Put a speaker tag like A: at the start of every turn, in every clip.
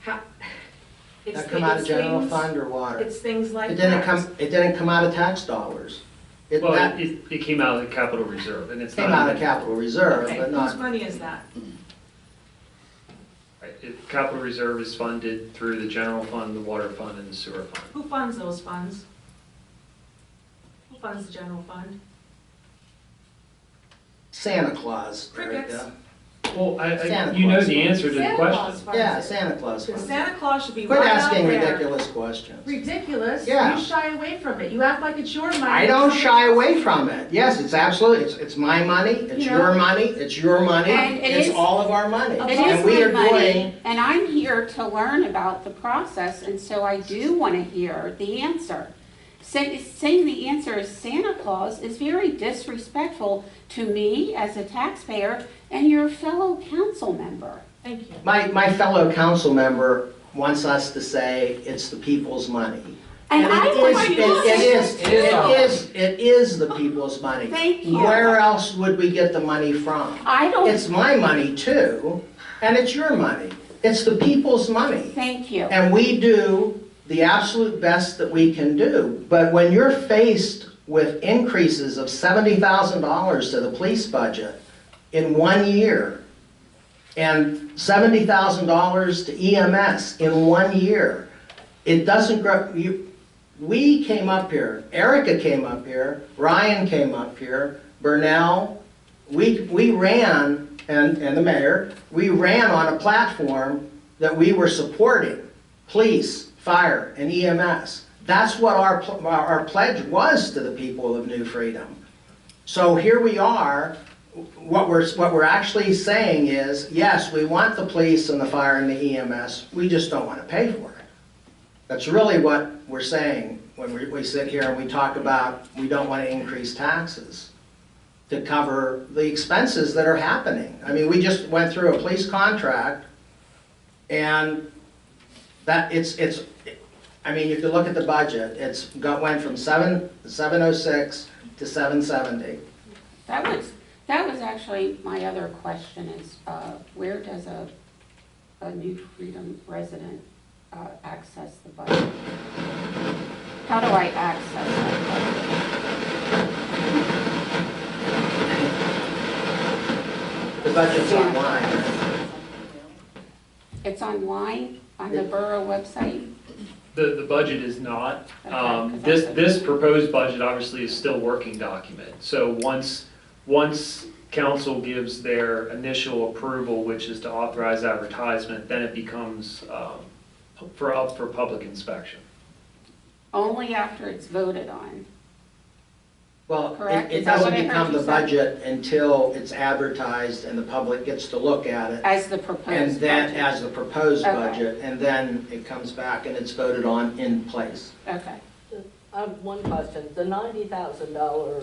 A: How- it's
B: That come out of
A: it's
B: general
A: things-
B: fund or water?
A: It's things like
B: It
A: that.
B: didn't come, it didn't come out of tax dollars. It
C: Well,
B: that
C: it- it, it came out of the capital reserve, and it's not.
B: came out
C: in
B: of
C: the-
B: capital reserve,
A: Okay,
B: but
A: whose
B: not,
A: money is that?
C: Right, it- Capital reserve is funded through the general fund, the water fund, and the sewer fund.
A: Who funds those funds? Who funds the general fund?
B: Santa Claus,
A: Crickets.
B: Erica.
C: Well, I, I,
B: Santa
C: you know
B: Claus
C: the
B: fund.
C: answer to the
D: Santa Claus
C: question.
D: funds
B: Yeah,
D: it.
B: Santa Claus. funds it.
A: Santa Claus should be
B: Quit
A: right out
B: asking
A: there.
B: ridiculous questions.
D: Ridiculous.
B: Yeah.
D: You shy away from it. You act like it's your money.
B: I don't shy away from it. Yes, it's absolutely, it's, it's my money, it's
D: You
B: your
D: know?
B: money, it's your money,
E: And it
B: it's
E: is-
B: all of our money.
E: It
B: And we are
E: is my
B: doing.
E: money, and I'm here to learn about the process, and so I do want to hear the answer. Say- Saying the answer is Santa Claus is very disrespectful to me as a taxpayer and your fellow council member.
A: Thank you.
B: My, my fellow council member wants us to say it's the people's money.
E: And I
B: it
E: want
B: is-
E: to
B: it- It is, it is, it is the people's money.
E: Thank you.
B: Where else would we get the money from?
E: I don't,
B: It's my money too, and it's your money. It's the people's money.
E: thank you.
B: And we do the absolute best that we can do. But when you're faced with increases of $70,000 to the police budget in one year, and $70,000 to EMS in one year, it doesn't grow, you, we came up here, Erica came up here, Ryan came up here, Burnell, we, we ran, and, and the mayor, we ran on a platform that we were supporting police, fire, and EMS. That's what our, pl- our our pledge was to the people of New Freedom. So here we are, what we're, what we're actually saying is, yes, we want the police and the fire and the EMS, we just don't want to pay for it. That's really what we're saying when we, we sit here and we talk about, we don't want to increase taxes to cover the expenses that are happening. I mean, we just went through a police contract and that, it's, it's, I mean, if you look at the budget, it's got, went from seven, seven oh six to seven seventy.
E: That was, that was actually my other question is, uh, where does a, a New Freedom resident uh, access the budget? How do I access that budget?
B: The budget's online.
E: It's online, on the borough website?
C: The, the budget is not. Um,
E: Okay.
C: This, this proposed budget obviously is still working document. So once, once council gives their initial approval, which is to authorize advertisement, then it becomes um, for, up for public inspection.
E: Only after it's voted on.
B: Well, it-
E: Correct?
B: it
E: Is that what
B: doesn't
E: I heard
B: become
E: you
B: the
E: say?
B: budget until it's advertised and the public gets to look at it.
E: As the
B: And
E: proposed
B: then,
E: budget?
B: as the proposed
E: Okay.
B: budget, and then it comes back and it's voted on in place.
E: Okay.
F: I have one question. The ninety thousand dollar,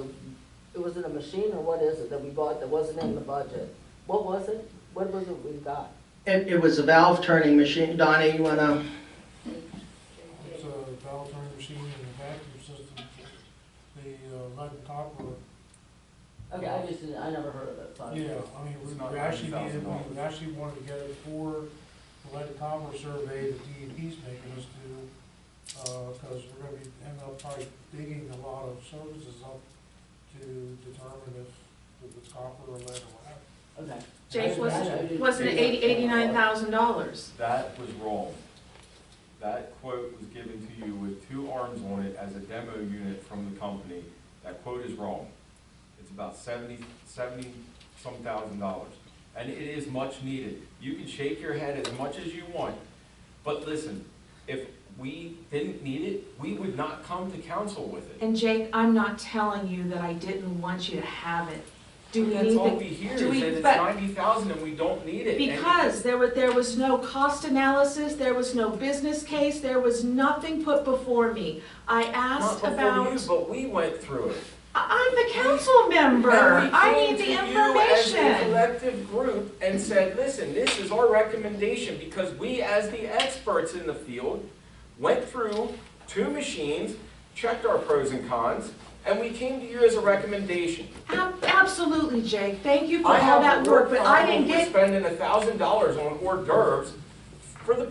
F: was it a machine or what is it that we bought that wasn't in the budget? What was it? What was it we got?
B: It, it was a valve turning machine. Donnie, you wanna,
G: It's a valve turning machine and a vacuum system. The uh, lead and copper,
F: Okay, I just, didn't- I never heard of it, so. I-
G: yeah, I mean, we we actually needed, we actually wanted to get it for the lead and copper survey that DEP's making us do, because we're gonna be, end up probably digging a lot of services up to determine if it's copper or lead or whatever.
F: Okay.
A: Jake,
F: I- I- I
A: wasn't,
F: didn't-
A: wasn't it eighty, eighty-nine thousand dollars?
H: That was wrong. That quote was given to you with two arms on it as a demo unit from the company. That quote is wrong. It's about seventy, seventy some thousand dollars. And it is much needed. You can shake your head as much as you want, but listen, if we didn't need it, we would not come to council with it.
A: And Jake, I'm not telling you that I didn't want you to have it. Do we
H: That's all we
A: need
H: hear is
A: do
H: that
A: we-
H: it's
A: but-
H: ninety thousand and we don't need
A: the,
H: it. And-
A: because there was, there was no cost analysis, there was no business case, there was nothing put before me. I
H: Not
A: asked
H: before you,
A: about,
H: but we went through it.
A: I- I'm the council member,
H: And we
A: I
H: came
A: need
H: to
A: the
H: you As a
A: information.
H: collective group and said, listen, this is our recommendation because we, as the experts in the field, went through two machines, checked our pros and cons, and we came to you as a recommendation.
A: Ab- Absolutely, Jake, thank you for
H: I
A: all
H: have
A: that
H: a
A: work, but I
H: problem
A: didn't
H: with
A: get
H: Spending a thousand dollars on hors d'oeuvres for the